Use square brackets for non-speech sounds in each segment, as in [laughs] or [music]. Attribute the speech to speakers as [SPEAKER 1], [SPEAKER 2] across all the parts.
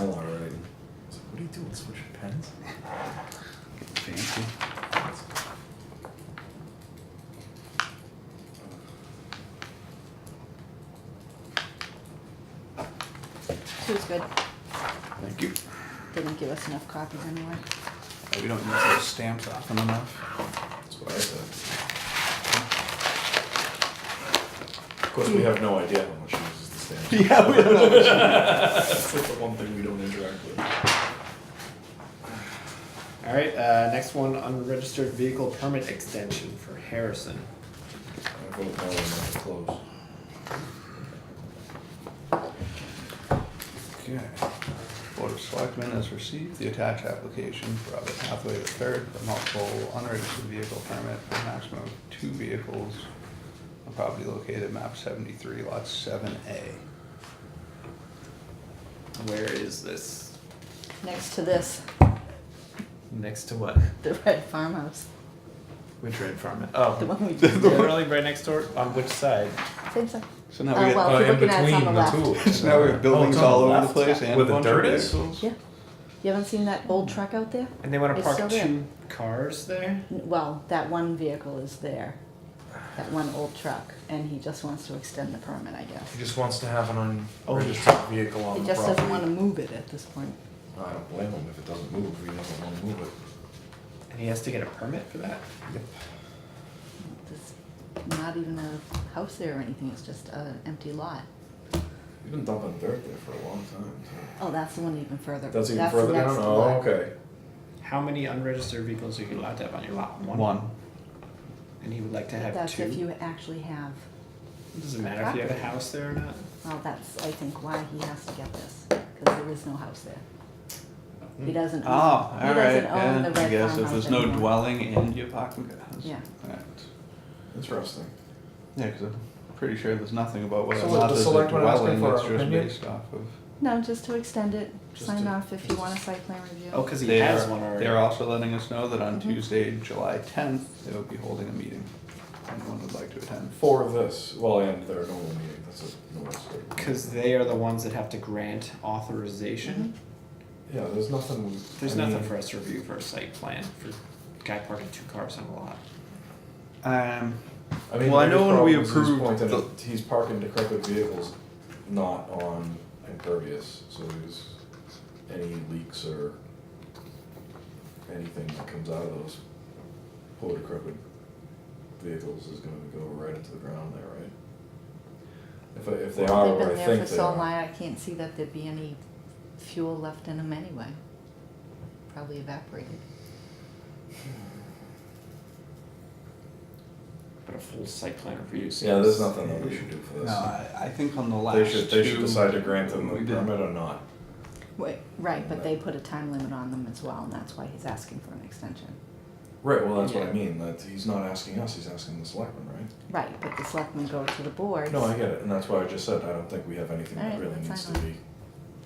[SPEAKER 1] Oh,
[SPEAKER 2] It was good.
[SPEAKER 3] Thank you.
[SPEAKER 2] Didn't give us enough copies anyway.
[SPEAKER 3] We don't use those stamps often enough.
[SPEAKER 1] That's what I said. Of course, we have no idea how much he uses the stamps.
[SPEAKER 3] [laughs] Yeah, we don't.
[SPEAKER 1] That's like the one thing we don't interact with.
[SPEAKER 4] All right, uh, next one, unregistered vehicle permit extension for Harrison.
[SPEAKER 1] I vote no on that to close.
[SPEAKER 3] Okay. Board of Selectmen has received the attached application for Robert Hathaway III for multiple unregistered vehicle permit for a maximum of two vehicles on property located at map seventy-three, lot seven A.
[SPEAKER 4] Where is this?
[SPEAKER 2] Next to this, [laughs]
[SPEAKER 4] Next to what?
[SPEAKER 2] the red farmhouse,
[SPEAKER 4] Which red farm? Oh,
[SPEAKER 1] [laughs]
[SPEAKER 2] the one we
[SPEAKER 4] literally right next door. On which side?
[SPEAKER 2] Same side.
[SPEAKER 3] So now we
[SPEAKER 2] Oh, well.
[SPEAKER 1] Uh,
[SPEAKER 3] get,
[SPEAKER 2] if you're looking at it, it's on the left.
[SPEAKER 1] two.
[SPEAKER 3] [laughs] so [laughs] now we have buildings
[SPEAKER 1] Oh, it's on
[SPEAKER 3] all over the
[SPEAKER 1] left.
[SPEAKER 3] place and a
[SPEAKER 1] Where the
[SPEAKER 3] bunch of Oh,
[SPEAKER 1] dirt is?
[SPEAKER 3] vehicles.
[SPEAKER 2] Yeah. You haven't seen that old truck out there?
[SPEAKER 4] And they want to
[SPEAKER 2] It's
[SPEAKER 4] park
[SPEAKER 2] still there.
[SPEAKER 4] two cars there.
[SPEAKER 2] N- Well, that one vehicle is there, that one old truck, and he just wants to extend the permit, I guess.
[SPEAKER 1] He just wants to have an
[SPEAKER 4] Oh.
[SPEAKER 1] unregistered vehicle
[SPEAKER 2] He
[SPEAKER 1] on the
[SPEAKER 2] just doesn't wanna
[SPEAKER 1] property.
[SPEAKER 2] move it at this point.
[SPEAKER 1] I don't blame him if it doesn't move, he doesn't wanna move it.
[SPEAKER 4] And he has to get a permit for that.
[SPEAKER 2] There's not even a house there or anything, it's just an empty lot.
[SPEAKER 1] He's been dumping dirt there for a long time, too.
[SPEAKER 2] Oh, that's the one even further.
[SPEAKER 1] That's even
[SPEAKER 2] the
[SPEAKER 1] further
[SPEAKER 2] next
[SPEAKER 1] down, oh,
[SPEAKER 2] lot.
[SPEAKER 1] okay.
[SPEAKER 4] How many unregistered vehicles are you allowed to have on your lot?
[SPEAKER 3] One.
[SPEAKER 4] And he would like to have
[SPEAKER 2] That's
[SPEAKER 4] two.
[SPEAKER 2] if you actually have,
[SPEAKER 4] It Doesn't matter if you have a house there or not.
[SPEAKER 2] well, that's, I think, why he has to get this, cause there is no house there. He doesn't
[SPEAKER 3] Oh,
[SPEAKER 2] own.
[SPEAKER 3] all
[SPEAKER 2] he
[SPEAKER 3] right,
[SPEAKER 2] doesn't own
[SPEAKER 3] yeah,
[SPEAKER 2] the
[SPEAKER 3] I
[SPEAKER 2] red
[SPEAKER 3] guess if
[SPEAKER 2] farmhouse
[SPEAKER 3] there's no
[SPEAKER 2] anymore.
[SPEAKER 3] dwelling and you park, yes.
[SPEAKER 2] Yeah.
[SPEAKER 3] Alright.
[SPEAKER 1] Interesting.
[SPEAKER 3] Yeah, cause I'm pretty sure there's nothing about whether
[SPEAKER 1] So
[SPEAKER 3] or
[SPEAKER 1] was
[SPEAKER 3] not
[SPEAKER 1] the
[SPEAKER 3] there's a
[SPEAKER 1] selectmen asking
[SPEAKER 3] dwelling,
[SPEAKER 1] for
[SPEAKER 3] that's
[SPEAKER 1] our
[SPEAKER 3] just
[SPEAKER 1] opinion?
[SPEAKER 3] based off of.
[SPEAKER 2] No, just to extend it,
[SPEAKER 1] Just
[SPEAKER 2] sign
[SPEAKER 1] to-
[SPEAKER 2] off if you want a site plan review.
[SPEAKER 4] Oh, because he
[SPEAKER 3] They
[SPEAKER 4] has
[SPEAKER 3] are-
[SPEAKER 4] one already.
[SPEAKER 3] They're also letting us know that
[SPEAKER 1] Mm-hmm.
[SPEAKER 3] on Tuesday, July tenth, they will be holding a meeting. Anyone would like to attend.
[SPEAKER 1] For this, well, and their normal meeting, that's a normal story.
[SPEAKER 4] Because they are the ones that have to grant authorization.
[SPEAKER 2] Mm-hmm.
[SPEAKER 1] Yeah, there's nothing.
[SPEAKER 4] There's
[SPEAKER 1] I mean,
[SPEAKER 4] nothing for us to review for a site plan for guy parking two cars on a lot.
[SPEAKER 3] Um,
[SPEAKER 1] I mean,
[SPEAKER 3] Well, I
[SPEAKER 1] the
[SPEAKER 3] know
[SPEAKER 1] biggest
[SPEAKER 3] when we
[SPEAKER 1] problem is he's
[SPEAKER 3] approved
[SPEAKER 1] pointing
[SPEAKER 3] the-
[SPEAKER 1] at- He's parking decrepit vehicles, not on impervious, so there's any leaks or anything that comes out of those poor decrepit vehicles is gonna go right into the ground there, right? If, I- if they are,
[SPEAKER 2] They've
[SPEAKER 1] or I
[SPEAKER 2] been there for
[SPEAKER 1] think they
[SPEAKER 2] so long,
[SPEAKER 1] are.
[SPEAKER 2] I can't see that there'd be any fuel left in them anyway. Probably evaporated.
[SPEAKER 4] But a full site plan review.
[SPEAKER 1] Yeah, there's
[SPEAKER 4] seems-
[SPEAKER 1] nothing that we should do for
[SPEAKER 3] no,
[SPEAKER 1] this.
[SPEAKER 3] I, I think on the last two.
[SPEAKER 1] They should, they should decide to grant them
[SPEAKER 3] we
[SPEAKER 1] the
[SPEAKER 3] did-
[SPEAKER 1] permit or not.
[SPEAKER 2] Wait, right, but they put a time limit on them as well, and that's why he's asking for an extension.
[SPEAKER 1] Right, well, that's what I
[SPEAKER 4] Yeah.
[SPEAKER 1] mean, that, he's not asking us, he's asking the selectmen, right?
[SPEAKER 2] Right, but the selectmen go to the boards.
[SPEAKER 1] No, I get it, and that's why I just said, I don't think we have anything that
[SPEAKER 2] Alright,
[SPEAKER 1] really
[SPEAKER 2] that's
[SPEAKER 1] needs to
[SPEAKER 2] fine.
[SPEAKER 1] be,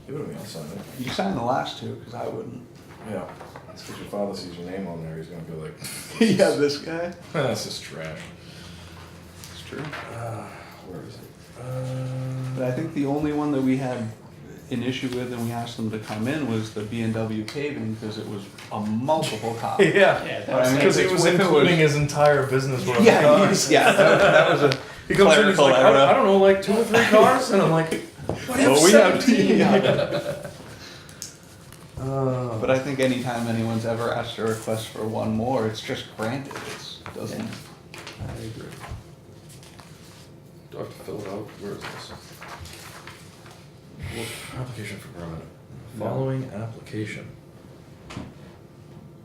[SPEAKER 1] give it to me, I'll sign it.
[SPEAKER 3] You signed the last two, cause I [laughs] wouldn't.
[SPEAKER 1] Yeah, it's 'cause your father sees your name on there, he's gonna be like, [laughs]
[SPEAKER 3] Yeah, this guy.
[SPEAKER 1] this is trash.
[SPEAKER 3] It's true.
[SPEAKER 1] Uh, Where is it?
[SPEAKER 3] But
[SPEAKER 1] Uh,
[SPEAKER 3] I think the only one that we had an issue with and we asked them to come in was the B and W paving, cause it was a multiple [laughs] copy.
[SPEAKER 4] Yeah,
[SPEAKER 1] [laughs] Yeah,
[SPEAKER 4] that was
[SPEAKER 3] I mean,
[SPEAKER 1] because
[SPEAKER 4] like,
[SPEAKER 1] he
[SPEAKER 3] if it
[SPEAKER 1] was
[SPEAKER 3] was-
[SPEAKER 1] including his entire business worth of
[SPEAKER 3] Yeah,
[SPEAKER 1] cars.
[SPEAKER 3] he's- yeah, that that was a.
[SPEAKER 1] He comes in, he's
[SPEAKER 3] clerical
[SPEAKER 1] like, I
[SPEAKER 3] error.
[SPEAKER 1] don't, I don't know, like two or three cars, and I'm like, what, I
[SPEAKER 3] Well, we
[SPEAKER 1] have
[SPEAKER 3] have
[SPEAKER 1] seventeen?
[SPEAKER 3] yeah.
[SPEAKER 1] Uh,
[SPEAKER 3] [laughs] But I think anytime anyone's ever asked a request for one more, it's just granted, it's, doesn't.
[SPEAKER 4] I agree.
[SPEAKER 1] Do I have to fill it out? Where is this? Well, application for permit.
[SPEAKER 3] No.
[SPEAKER 1] Following application.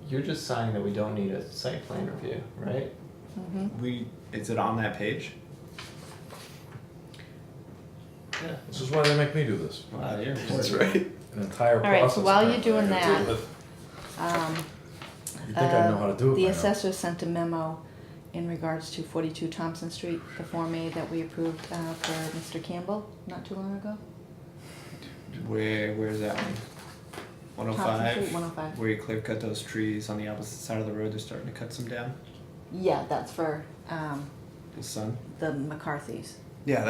[SPEAKER 5] You're just saying that we don't need a site plan review, right?
[SPEAKER 2] Mhm.
[SPEAKER 4] We is it on that page?
[SPEAKER 5] Yeah.
[SPEAKER 1] This is why they make me do this.
[SPEAKER 3] Uh,
[SPEAKER 5] Wow, you're
[SPEAKER 1] That's
[SPEAKER 5] important.
[SPEAKER 3] right.
[SPEAKER 1] An entire
[SPEAKER 2] All right, so
[SPEAKER 1] process.
[SPEAKER 2] while you're
[SPEAKER 1] apparently I
[SPEAKER 2] doing
[SPEAKER 1] gotta deal
[SPEAKER 2] that,
[SPEAKER 1] with.
[SPEAKER 2] Um,
[SPEAKER 1] You'd think I'd know
[SPEAKER 2] uh,
[SPEAKER 1] how to do it by
[SPEAKER 2] The
[SPEAKER 1] now.
[SPEAKER 2] assessor sent a memo in regards to forty-two Thompson Street, the Form A that we approved, uh, for Mr. Campbell not too long ago.
[SPEAKER 4] Where where's that one? One oh
[SPEAKER 2] Thompson Street,
[SPEAKER 4] five.
[SPEAKER 2] 105.
[SPEAKER 4] Where you clear cut those trees on the opposite side of the road, they're starting to cut some down.
[SPEAKER 2] Yeah, that's for, um,
[SPEAKER 4] The sun.
[SPEAKER 2] the McCarthys.
[SPEAKER 3] Yeah,